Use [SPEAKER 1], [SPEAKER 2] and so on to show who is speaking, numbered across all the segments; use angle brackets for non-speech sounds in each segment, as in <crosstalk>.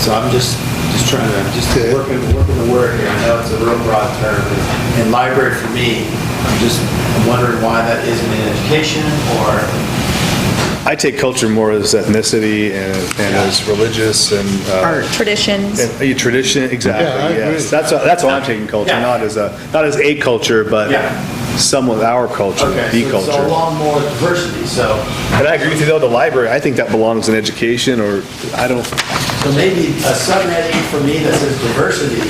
[SPEAKER 1] So I'm just, just trying to, just
[SPEAKER 2] Okay.
[SPEAKER 1] working, working the word here. I know it's a real broad term, but- and library for me, I'm just wondering why that isn't in education or,
[SPEAKER 2] I take culture more as ethnicity and and as religious and. Art.
[SPEAKER 3] Traditions.
[SPEAKER 2] And a tradition,
[SPEAKER 4] Yeah, I
[SPEAKER 2] exactly,
[SPEAKER 4] agree.
[SPEAKER 2] yes. That's, that's why I'm taking culture,
[SPEAKER 1] Yeah.
[SPEAKER 2] not as a, not as a culture, but
[SPEAKER 1] Yeah.
[SPEAKER 2] some of our culture,
[SPEAKER 1] okay,
[SPEAKER 2] the
[SPEAKER 1] so it's a
[SPEAKER 2] culture.
[SPEAKER 1] lot more diversity, so,
[SPEAKER 2] And I agree with you though, the library, I think that belongs in education or, I don't,
[SPEAKER 1] so maybe a subheading for me that says diversity,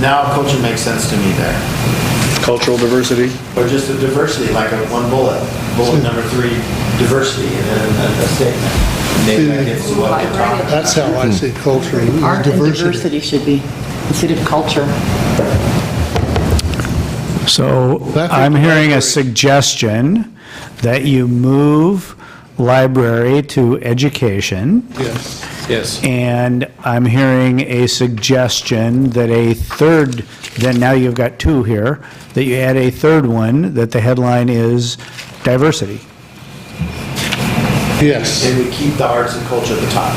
[SPEAKER 1] now culture makes sense to me there.
[SPEAKER 2] cultural diversity?
[SPEAKER 1] Or just a diversity, like a one bullet, bullet number three, diversity, and then a- a statement. Maybe that gives us what we're talking about.
[SPEAKER 4] That's how I see culture, is
[SPEAKER 5] Art and
[SPEAKER 4] diversity.
[SPEAKER 5] diversity should be, instead of culture.
[SPEAKER 6] So
[SPEAKER 4] Traffic
[SPEAKER 6] I'm hearing a
[SPEAKER 4] libraries.
[SPEAKER 6] suggestion that you move library to education,
[SPEAKER 4] Yes.
[SPEAKER 2] Yes.
[SPEAKER 6] and I'm hearing a suggestion that a third, then now you've got two here, that you add a third one, that the headline is diversity.
[SPEAKER 4] Yes.
[SPEAKER 1] And we keep the arts and culture at the top.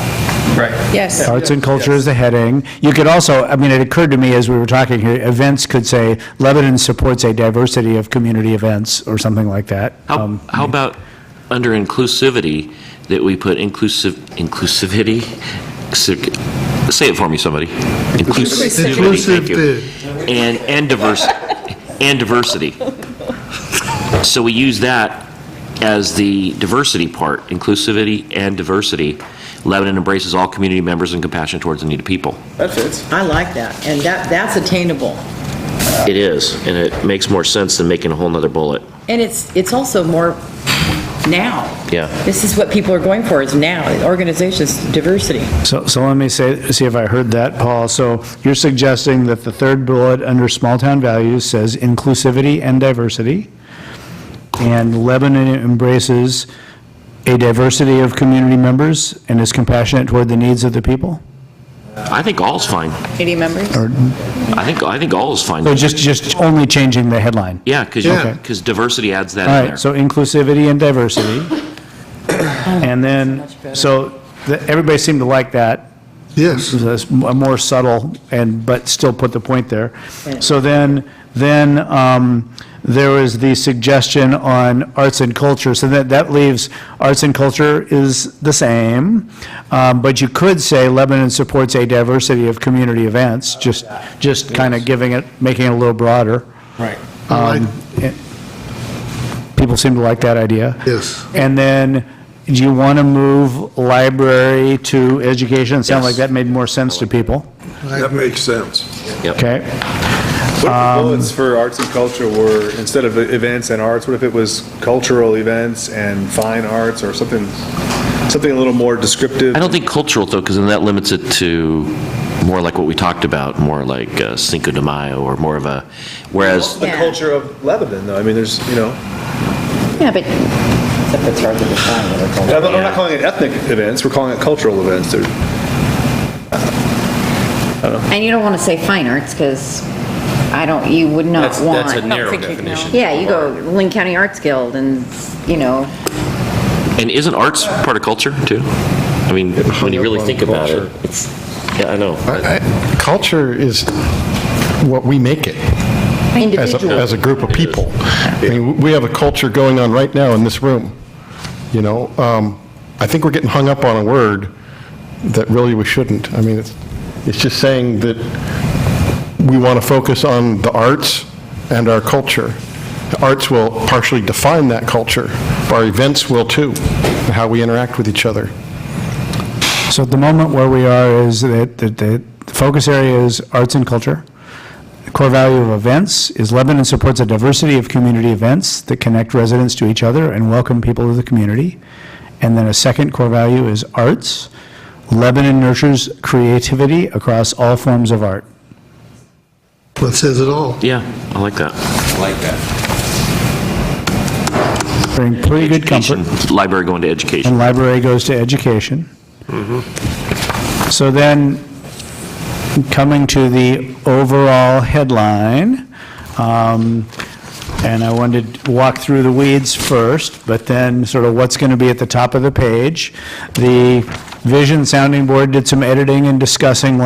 [SPEAKER 3] Yes.
[SPEAKER 6] Arts and culture is the heading. You could also, I mean, it occurred to me as we were talking here, events could say Lebanon supports a diversity of community events, or something like that.
[SPEAKER 7] How
[SPEAKER 6] Um,
[SPEAKER 7] how about under inclusivity, that we put inclusive, inclusivity? Sic- Say it for me, somebody. Inclusivity, thank you. And, and diverse, and diversity. So we use that as the diversity part, inclusivity and diversity. Lebanon embraces all community members and compassion towards the needy people.
[SPEAKER 5] I like that, and that, that's attainable.
[SPEAKER 7] It is, and it makes more sense than making a whole nother bullet.
[SPEAKER 5] And it's, it's also more now.
[SPEAKER 7] Yeah.
[SPEAKER 5] This is what people are going for, is now, organizations, diversity.
[SPEAKER 6] So, so let me say, see if I heard that, Paul. So you're suggesting that the third bullet under small-town values says inclusivity and diversity, and Lebanon embraces a diversity of community members and is compassionate toward the needs of the people?
[SPEAKER 7] I think all's fine.
[SPEAKER 3] Community members.
[SPEAKER 7] I think, I think all is fine.
[SPEAKER 6] So just, just only changing the headline?
[SPEAKER 7] Yeah, because,
[SPEAKER 4] Yeah.
[SPEAKER 7] because diversity adds that
[SPEAKER 6] All
[SPEAKER 7] in there.
[SPEAKER 6] right, so inclusivity and diversity. <coughs> And then, so, the- everybody seemed to like that.
[SPEAKER 4] Yes.
[SPEAKER 6] That's a more subtle and, but still put the point there. So then, then um, there was the suggestion on arts and culture, so that, that leaves arts and culture is the same, Um, but you could say Lebanon supports a diversity of community events, just, just kind of giving it, making it a little broader.
[SPEAKER 2] Right.
[SPEAKER 6] Um, it- People seem to like that idea.
[SPEAKER 4] Yes.
[SPEAKER 6] And then, do you want to move library to education? It Sound like
[SPEAKER 7] Yes.
[SPEAKER 6] that made more sense to people,
[SPEAKER 8] That makes sense.
[SPEAKER 6] okay?
[SPEAKER 2] What if the
[SPEAKER 7] Um,
[SPEAKER 2] bullets for arts and culture were, instead of events and arts, what if it was cultural events and fine arts or something, something a little more descriptive?
[SPEAKER 7] I don't think cultural, though, because then that limits it to more like what we talked about, more like uh, Cinco de Mayo, or more of a, whereas,
[SPEAKER 2] The culture of Lebanon, though, I mean, there's, you know,
[SPEAKER 3] Yeah, but
[SPEAKER 5] Except it's hard to define what they're
[SPEAKER 2] I'm not- I'm not calling it ethnic events, we're calling it cultural events. They're-
[SPEAKER 9] And you don't want to say fine arts, because I don't, you would not
[SPEAKER 10] That's,
[SPEAKER 9] want.
[SPEAKER 10] that's a narrow
[SPEAKER 3] think you'd
[SPEAKER 10] definition.
[SPEAKER 9] Yeah, you go Lynn County Arts Guild and, you know,
[SPEAKER 7] and isn't arts part of culture, too? I mean, when you really think about it, it's, yeah, I know.
[SPEAKER 11] I- I- Culture is what we make it as a,
[SPEAKER 9] individual.
[SPEAKER 11] as a group of people. I mean, we have a culture going on right now in this room, you know? Um, I think we're getting hung up on a word that really we shouldn't. I mean, it's, it's just saying that we want to focus on the arts and our culture. The arts will partially define that culture, our events will too, and how we interact with each other.
[SPEAKER 6] So at the moment where we are is that, that the focus area is arts and culture. The core value of events is Lebanon supports a diversity of community events that connect residents to each other and welcome people to the community. And then a second core value is arts. Lebanon nurtures creativity across all forms of art.
[SPEAKER 4] That says it all.
[SPEAKER 7] Yeah, I like that.
[SPEAKER 10] Like that.
[SPEAKER 6] Bring pretty good comfort.
[SPEAKER 7] Education, Library going to education.
[SPEAKER 6] And library goes to education. So then, coming to the overall headline, um, and I wanted to walk through the weeds first, but then sort of what's going to be at the top of the page. The Vision Sounding Board did some editing and discussing